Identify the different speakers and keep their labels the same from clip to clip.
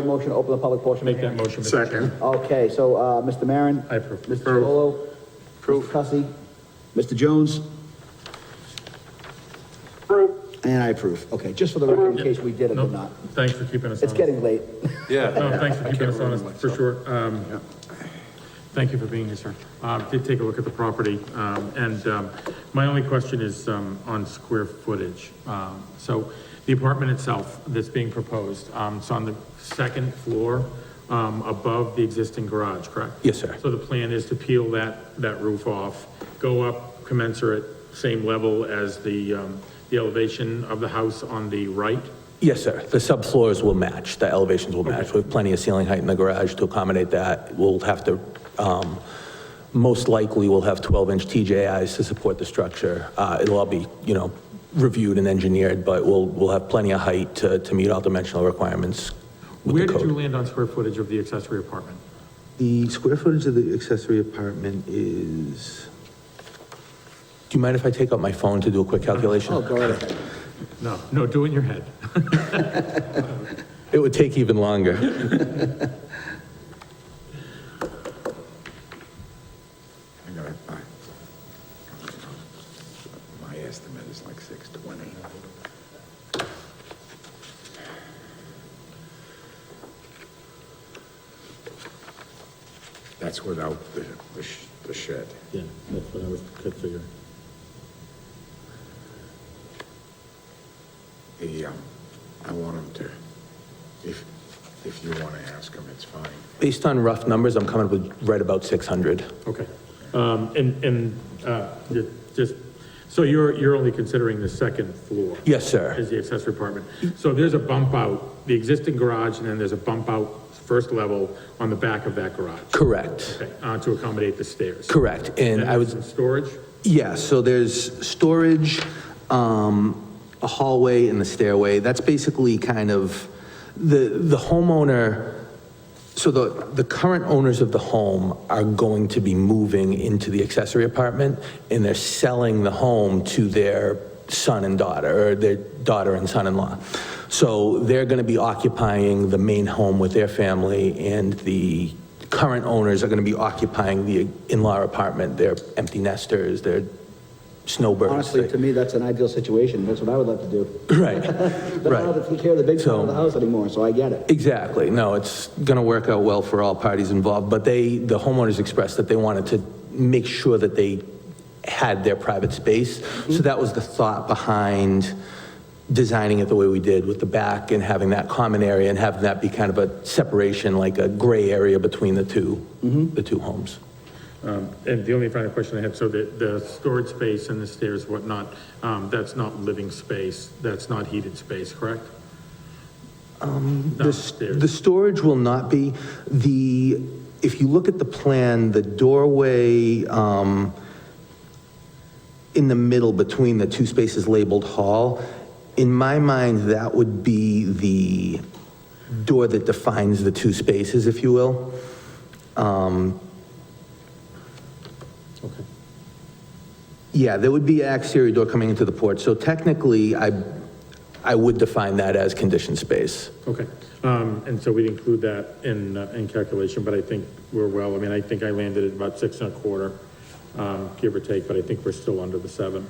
Speaker 1: a motion to open the public portion?
Speaker 2: Make that motion. Mr.
Speaker 3: Second.
Speaker 2: Chairman.
Speaker 1: Okay, so, uh, Mr. Maron?
Speaker 2: I approve.
Speaker 1: Mr. Chacolo? Mr. Cussy? Mr. Jones? Approve. And I approve. Okay, just for the record, in case we did or
Speaker 2: No,
Speaker 1: did not.
Speaker 2: Thanks for keeping us honest.
Speaker 1: It's getting late.
Speaker 2: No, thanks for keeping us honest, for sure. Um, Thank you for being here, sir. Uh, Did take a look at the property, um, and um, my only question is um, on square footage. Um, So the apartment itself that's being proposed, um, it's on the second floor um, above the existing garage, correct?
Speaker 4: Yes, sir.
Speaker 2: So the plan is to peel that, that roof off, go up commensurate, same level as the, um, the elevation of the house on the right?
Speaker 4: Yes, sir. The subfloors will match, the elevations will match. We have plenty of ceiling height in the garage to accommodate that. We'll have to, um, most likely, we'll have 12-inch TJIs to support the structure. Uh, It'll all be, you know, reviewed and engineered, but we'll, we'll have plenty of height to, to meet all dimensional requirements
Speaker 2: Where
Speaker 4: with the
Speaker 2: did you
Speaker 4: code.
Speaker 2: land on square footage of the accessory apartment?
Speaker 5: The square footage of the accessory apartment is,
Speaker 4: Do you mind if I take out my phone to do a quick
Speaker 1: Oh,
Speaker 4: calculation?
Speaker 1: go right ahead.
Speaker 2: No, no, do it in your head.
Speaker 4: It would take even longer.
Speaker 3: I got it, fine. My estimate is like six twenty. That's without the, the sh- the shed.
Speaker 2: Yeah, that's what I was, could figure.
Speaker 3: The, um, I want him to, if, if you want to ask him, it's fine.
Speaker 4: Based on rough numbers, I'm coming up with right about 600.
Speaker 2: Okay. Um, and, and, uh, ju- just, so you're, you're only considering the second floor?
Speaker 4: Yes, sir.
Speaker 2: As the accessory apartment. So there's a bump out, the existing garage, and then there's a bump out first level on the back of that garage?
Speaker 4: Correct,
Speaker 2: Okay, uh, to accommodate the stairs?
Speaker 4: correct. And I was,
Speaker 2: And storage?
Speaker 4: Yeah, so there's storage, um, a hallway and the stairway. That's basically kind of, the, the homeowner, so the, the current owners of the home are going to be moving into the accessory apartment, and they're selling the home to their son and daughter, or their daughter and son-in-law. So they're going to be occupying the main home with their family, and the current owners are going to be occupying the in-law apartment. They're empty nesters, they're snowbirds.
Speaker 1: Honestly, to me, that's an ideal situation. That's what I would love to do.
Speaker 4: Right,
Speaker 1: But I don't have
Speaker 4: right.
Speaker 1: to take care of the big part
Speaker 4: So-
Speaker 1: of the house anymore, so I get it.
Speaker 4: Exactly, no, it's going to work out well for all parties involved, but they, the homeowners expressed that they wanted to make sure that they had their private space, so that was the thought behind designing it the way we did with the back and having that common area and having that be kind of a separation, like a gray area between the two, the two homes.
Speaker 2: Um, and the only final question I had, so the, the storage space and the stairs, whatnot, um, that's not living space, that's not heated space, correct?
Speaker 4: Um, The s-
Speaker 2: Downstairs.
Speaker 4: The storage will not be, the, if you look at the plan, the doorway um, in the middle between the two spaces labeled hall, in my mind, that would be the door that defines the two spaces, if you will. Um,
Speaker 2: Okay.
Speaker 4: Yeah, there would be an exterior door coming into the porch, so technically, I, I would define that as conditioned space.
Speaker 2: Okay, um, and so we'd include that in, uh, in calculation, but I think we're well, I mean, I think I landed at about six and a quarter, um, give or take, but I think we're still under the seven.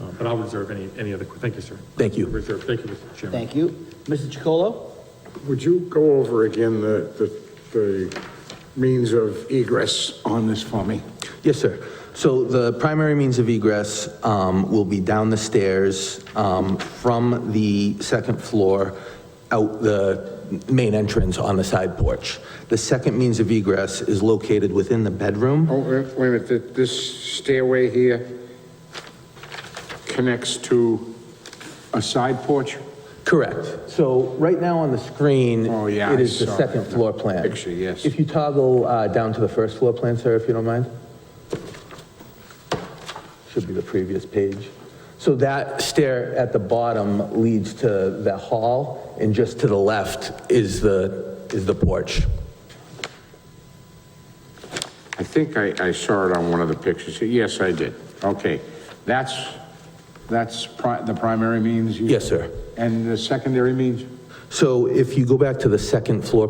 Speaker 2: Uh, But I'll reserve any, any other, thank you, sir.
Speaker 4: Thank you.
Speaker 2: Reserve, thank you, Mr. Chairman.
Speaker 1: Thank you. Mr. Chacolo?
Speaker 3: Would you go over again the, the, the means of egress on this for me?
Speaker 4: Yes, sir. So the primary means of egress um, will be down the stairs um, from the second floor out the main entrance on the side porch. The second means of egress is located within the bedroom.
Speaker 3: Oh, wait wait a minute, th- this stairway here connects to a side porch?
Speaker 4: Correct. So right now on the screen,
Speaker 3: Oh, yeah,
Speaker 4: it
Speaker 3: I
Speaker 4: is the
Speaker 3: saw
Speaker 4: second
Speaker 3: that.
Speaker 4: floor plan.
Speaker 3: Picture, yes.
Speaker 4: If you toggle uh, down to the first floor plan, sir, if you don't mind. Should be the previous page. So that stair at the bottom leads to the hall, and just to the left is the, is the porch.
Speaker 3: I think I, I saw it on one of the pictures. Yes, I did. Okay. That's, that's pri- the primary means? you-
Speaker 4: Yes, sir.
Speaker 3: And the secondary means?
Speaker 4: So if you go back to the second floor